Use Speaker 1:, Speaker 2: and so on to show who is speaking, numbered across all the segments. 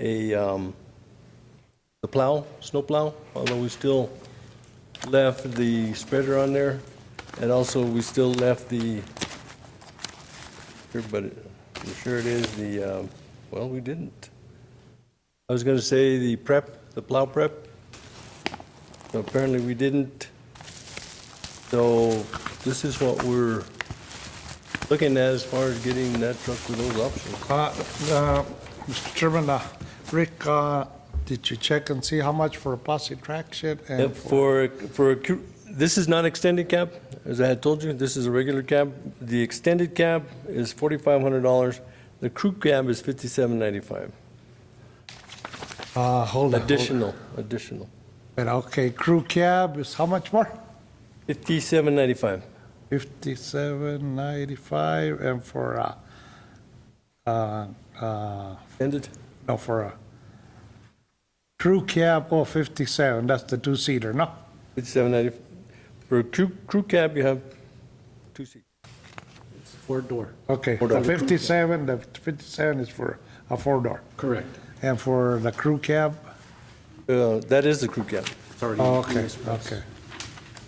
Speaker 1: a, um, the plow, snow plow, although we still left the spreader on there, and also we still left the, sure, but it- I'm sure it is the, um, well, we didn't. I was gonna say the prep, the plow prep. Apparently, we didn't. So this is what we're looking at as far as getting that truck with those options.
Speaker 2: Uh, uh, Mr. Chairman, uh, Rick, uh, did you check and see how much for posse traction
Speaker 1: Yeah,
Speaker 2: and for
Speaker 1: Uh, For, for, a cru- this is not extended cab, as I had told you, this is a regular cab. The extended cab is forty-five hundred dollars, the crew cab is fifty-seven ninety-five,
Speaker 2: Uh, hold on, hold on?
Speaker 1: additional, additional,
Speaker 2: But okay, crew cab is how much more?
Speaker 1: fifty-seven ninety-five.
Speaker 2: Fifty-seven ninety-five, and for, uh, uh, uh,
Speaker 1: Extended,
Speaker 2: no, for a crew cab, oh, fifty-seven, that's the two-seater, no?
Speaker 1: fifty-seven ninety, for a crew, crew cab, you have two seats.
Speaker 3: Four door,
Speaker 2: Okay,
Speaker 1: Four
Speaker 2: the
Speaker 1: door.
Speaker 2: fifty-seven, the fifty-seven is for a four-door,
Speaker 3: correct.
Speaker 2: and for the crew cab,
Speaker 1: Uh, that is the crew cab.
Speaker 3: It's already.
Speaker 2: oh,
Speaker 3: in
Speaker 2: okay,
Speaker 3: this price.
Speaker 2: okay.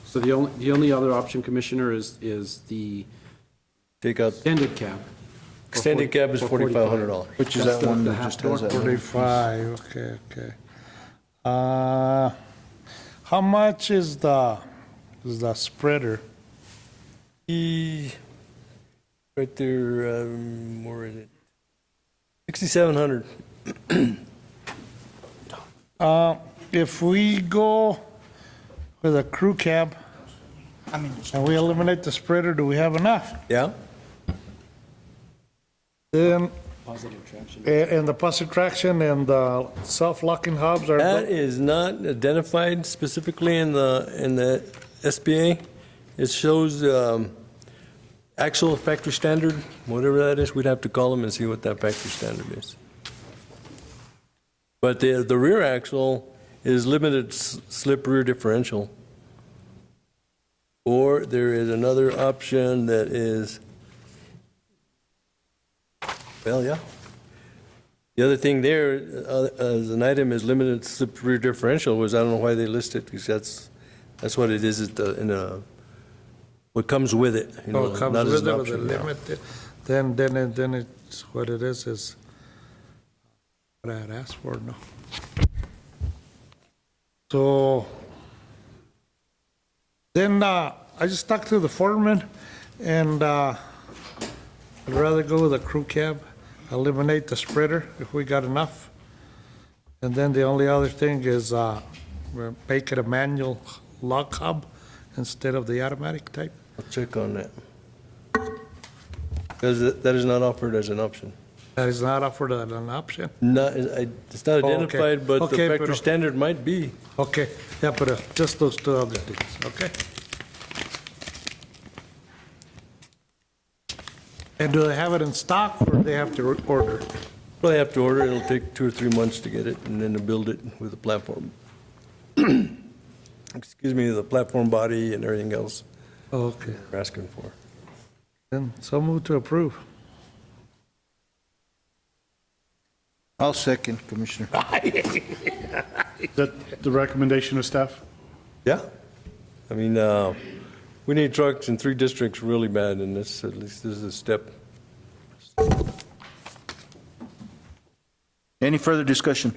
Speaker 3: So the only, the only other option, Commissioner, is, is the
Speaker 1: Take out,
Speaker 3: extended cab. for
Speaker 1: extended
Speaker 3: forty-
Speaker 1: cab is
Speaker 3: for
Speaker 1: forty-five hundred dollars.
Speaker 4: Which is
Speaker 3: That's
Speaker 4: that
Speaker 3: the-
Speaker 4: one
Speaker 3: the
Speaker 4: that
Speaker 3: half
Speaker 4: just has
Speaker 3: door.
Speaker 4: that? little-
Speaker 2: Forty-five, okay, okay. Uh, how much is the, is the spreader?
Speaker 1: E, right there, um, where is it? Sixty-seven hundred.
Speaker 2: Uh, if we go with a crew cab, and we eliminate the spreader, do we have enough?
Speaker 1: Yeah?
Speaker 2: Then,
Speaker 3: Positive traction.
Speaker 2: a- and the posse traction and the self-locking hubs are,
Speaker 1: That is not identified specifically in the, in the SBA. It shows um, actual factory standard, whatever that is, we'd have to call them and see what that factory standard is. But the, the rear axle is limited s- slip rear differential. Or there is another option that is, well, yeah. The other thing there, uh, as an item is limited slip rear differential, was I don't know why they list it, because that's, that's what it is, at the- in a, what comes with it. you know,
Speaker 2: oh, comes
Speaker 1: not as
Speaker 2: with
Speaker 1: an
Speaker 2: it with a
Speaker 1: option, yeah.
Speaker 2: limit, then, then, it- then it's, what it is, is what I had asked for, no? So, then, uh, I just talked to the foreman, and, uh, I'd rather go with a crew cab, eliminate the spreader if we got enough. And then the only other thing is, uh, we'll make it a manual lock hub instead of the automatic type.
Speaker 1: I'll check on that. Because that is not offered as an option.
Speaker 2: That is not offered as an option.
Speaker 1: Not, I- it's not
Speaker 2: Oh, okay.
Speaker 1: identified, but the
Speaker 2: Okay, but-
Speaker 1: factory standard might be.
Speaker 2: Okay, yeah, but uh, just those two other things, okay? And do they have it in stock, or they have to re- order? it?
Speaker 1: Probably have to order, it'll take two or three months to get it, and then to build it with the platform. Excuse me, the platform body and everything else
Speaker 2: Okay,
Speaker 1: we're asking for.
Speaker 2: then so move to approve.
Speaker 4: I'll second, Commissioner.
Speaker 5: Is that the recommendation of staff?
Speaker 1: Yeah. I mean, uh, we need trucks in three districts really bad, and this, at least this is a step.
Speaker 4: Any further discussion?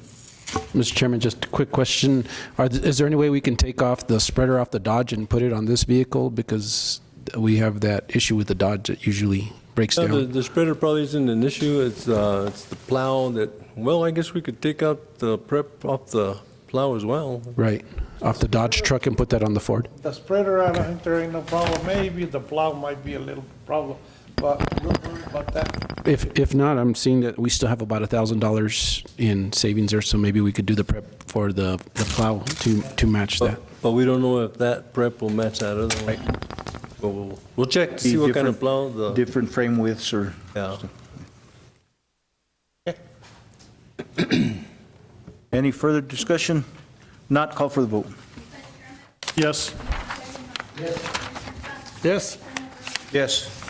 Speaker 6: Mr. Chairman, just a quick question. Are, th- is there any way we can take off the spreader off the Dodge and put it on this vehicle? Because we have that issue with the Dodge that usually breaks
Speaker 1: No, The
Speaker 6: down.
Speaker 1: the spreader probably isn't an issue, it's, uh, it's the plow that, well, I guess we could take out the prep off the plow as well.
Speaker 6: Right, off the Dodge truck and put that on the Ford?
Speaker 2: The spreader, I don't think there ain't no problem, maybe the plow might be a little problem, but don't worry about that.
Speaker 6: If, if not, I'm seeing that we still have about $1,000 in savings there, so maybe we could do the prep for the, the plow to, to match that.
Speaker 1: But but we don't know if that prep will match that other one. But we'll, we'll check to see
Speaker 4: Be
Speaker 1: what kind of
Speaker 4: different-
Speaker 1: plow the,
Speaker 4: Different frame widths or,
Speaker 1: yeah.
Speaker 4: any further discussion? Not call for the vote.
Speaker 5: Yes.
Speaker 2: Yes,
Speaker 4: Yes.